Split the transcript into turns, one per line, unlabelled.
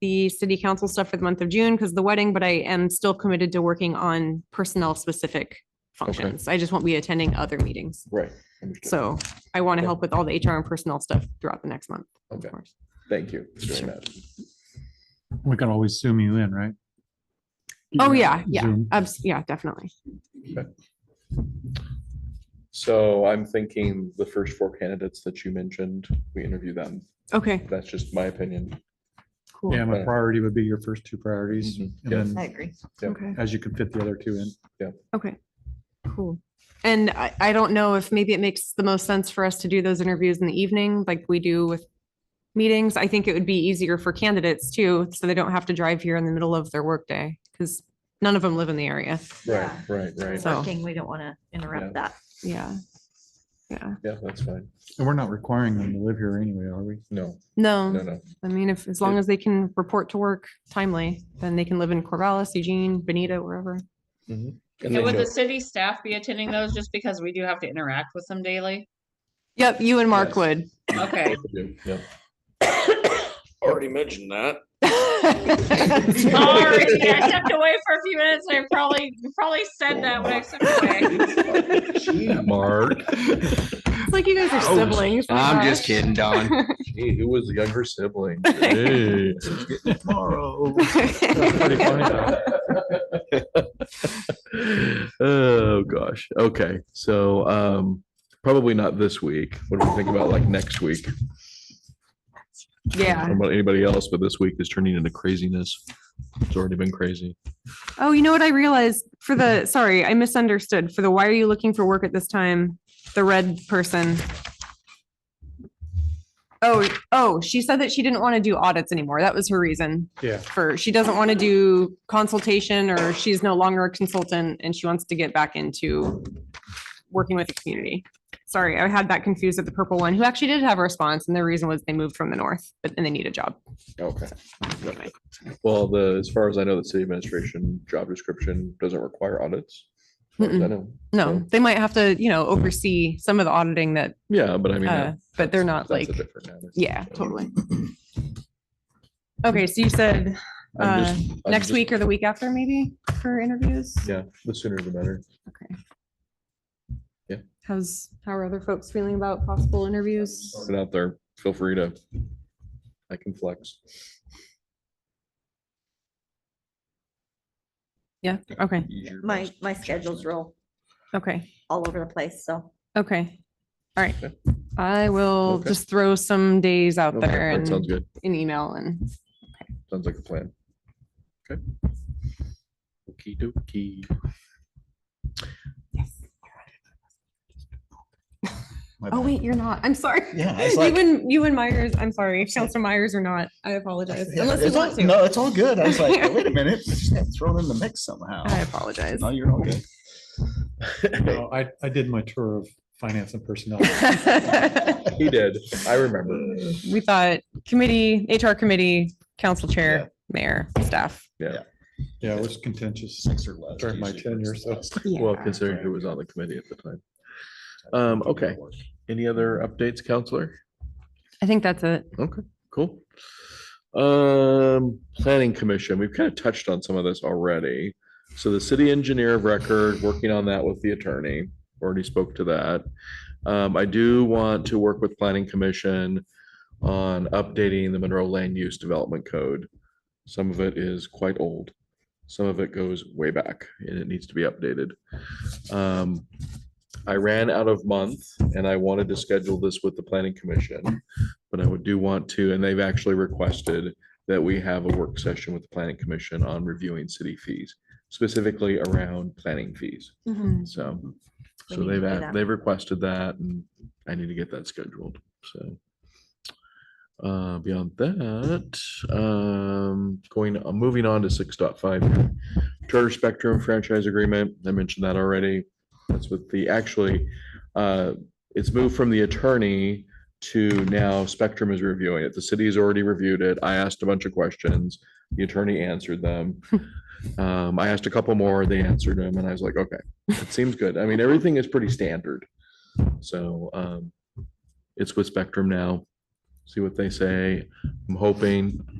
the city council stuff for the month of June because the wedding, but I am still committed to working on personnel specific functions. I just won't be attending other meetings.
Right.
So
So,
I want to
Okay.
help with all the HR and personnel stuff throughout the next month. of
Okay.
course.
thank you. for doing that.
We can always zoom you in, right?
Oh, yeah, yeah,
Zoom.
abs- yeah, definitely.
So I'm thinking the first four candidates that you mentioned, we interview them.
Okay,
That's just my opinion.
cool.
Yeah, my priority would be your first two priorities.
Mhm.
And
Yes.
I
then
agree.
Yep.
Okay.
as you can fit the other two in.
Okay, cool. And I, I don't know if maybe it makes the most sense for us to do those interviews in the evening like we do with meetings. I think it would be easier for candidates too, so they don't have to drive here in the middle of their workday because none of them live in the area.
Right,
Yeah.
right, right.
So-
Working, we don't want to interrupt that.
Yeah. Yeah.
Yeah, that's fine.
And we're not requiring them to live here anyway, are we?
No, no,
No,
no.
I mean, if, as long as they can report to work timely, then they can live in Corvallis, Eugene, Benita, wherever.
Mhm. And
Yeah,
then
would the
you'll-
city staff be attending those just because we do have to interact with them daily?
Yep, you and Mark
Yes.
would.
Okay,
Yeah.
Already mentioned that.
sorry, I stepped away for a few minutes. I probably, probably said that when I stepped away.
Mark.
It's like you guys are
Oh.
Ouch.
siblings. my
I'm just
gosh.
kidding, Don.
Gee, Who was the younger sibling?
Tomorrow.
Pretty funny though.
Oh, gosh. Okay, so um, probably not this week. What do we think about like next week? I
Yeah.
don't know about anybody else, but this week is turning into craziness. It's already been crazy.
Oh, you know what I realized for the, sorry, I misunderstood. For the why are you looking for work at this time? The red person. Oh, oh, she said that she didn't want to do audits anymore. That was her reason
Yeah.
for, she doesn't want to do consultation or she's no longer a consultant and she wants to get back into working with the community. Sorry, I had that confused with the purple one who actually did have a response and their reason was they moved from the north, but and they need a job.
Okay.
Anyway.
Well, the, as far as I know, the city administration job description doesn't require audits. as far as I
Mm-mm.
know.
No,
So,
they might have to, you know, oversee some of the auditing that
Yeah, but I mean.
Uh,
that-
but they're not
that's-
like,
that's a different matter.
yeah,
So,
totally. Okay, so you said
I'm
uh,
just- I'm
next
just-
week or the week after maybe for interviews?
Yeah, the sooner the better.
Okay.
Yeah.
How's, how are other folks feeling about possible interviews?
Put it out there. Feel free to. I can flex.
Yeah, okay,
Use your
My,
best.
my schedule's real
okay,
all over the place, so.
okay. All right.
Okay.
I will
Okay.
just throw some days out
Okay,
there
That sounds
and
good.
an email and
Sounds like a plan. Okay. Okey dokey.
My
Oh,
bad.
wait, you're not. I'm sorry.
Yeah, I was
You
like-
and, you and Myers, I'm sorry, if Counselor Myers or not, I apologize.
Yeah,
Unless you
it's all-
want to.
No, it's all good. I was like, wait a minute, she's got thrown in the mix somehow.
I apologize.
No, you're all good.
No, I, I did my tour of finance and personnel.
He did. I remember.
We thought committee, HR committee, council chair, mayor, staff.
Yeah, it was contentious
Six or less.
during my
usually
tenure,
works
so.
best.
Well, considering who was on the committee at the time. Um, okay. Any other updates, counselor?
I think that's it.
Cool. Um, planning commission, we've kind of touched on some of this already. So the city engineer of record, working on that with the attorney, already spoke to that. Um, I do want to work with planning commission on updating the Monroe Land Use Development Code. Some of it is quite old. Some of it goes way back and it needs to be updated. Um, I ran out of month and I wanted to schedule this with the planning commission. But I would do want to, and they've actually requested that we have a work session with the planning commission on reviewing city fees, specifically around planning fees. So,
Mm-hmm. We
so
need to
they've,
do
a-
that.
they've requested that and I need to get that scheduled, so. Uh, beyond that, um, going, uh, moving on to six point five Charter Spectrum franchise agreement. I mentioned that already. That's with the, actually, uh, it's moved from the attorney to now Spectrum is reviewing it. The city has already reviewed it. I asked a bunch of questions. The attorney answered them. Um, I asked a couple more, they answered them, and I was like, okay, it seems good. I mean, everything is pretty standard. So, um, it's with Spectrum now. See what they say. I'm hoping